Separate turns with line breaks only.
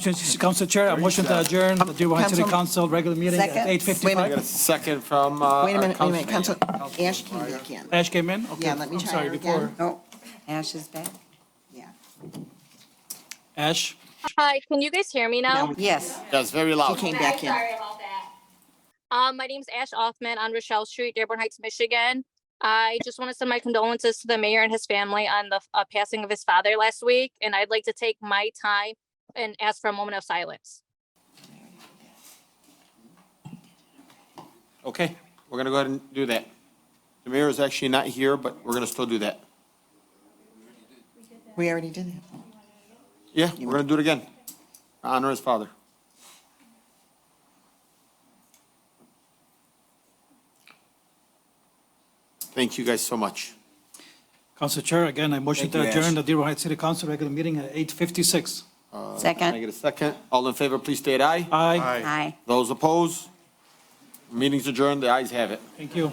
Motion, Council Chair, a motion to adjourn the Dearborn Heights City
Council-
Council regular meeting at
Second. Wait a
8:55.
minute.
I got a second from, uh.
Wait a
our
minute, wait a minute, Council,
councilman.
Ash came back in.
Ash came in? Okay,
Yeah, let me
I'm
try
sorry,
her
before-
again. Oh, Ash is back? Yeah.
Ash,
Hi, can you guys hear me now?
Oh, Yes,
That's very
she
loud.
came back in.
Sorry about that. Um, my name's Ash Offman on Rochelle Street, Dearborn Heights, Michigan. I just want to send my condolences to the mayor and his family on the uh, passing of his father last week, and I'd like to take my time and ask for a moment of silence.
Okay, we're gonna go ahead and do that. The mayor is actually not here, but we're gonna still do that.
We already did it.
Yeah, we're gonna do it again. Honor his father. Thank you guys so much.
Council Chair, again, I motion
Thank
to
you, Ash.
adjourn the Dearborn Heights City Council regular meeting at 8:56.
Can I
Second?
get a second? All in favor, please state aye.
Aye,
Aye.
Those opposed? Meeting's adjourned, the ayes have it.
thank you.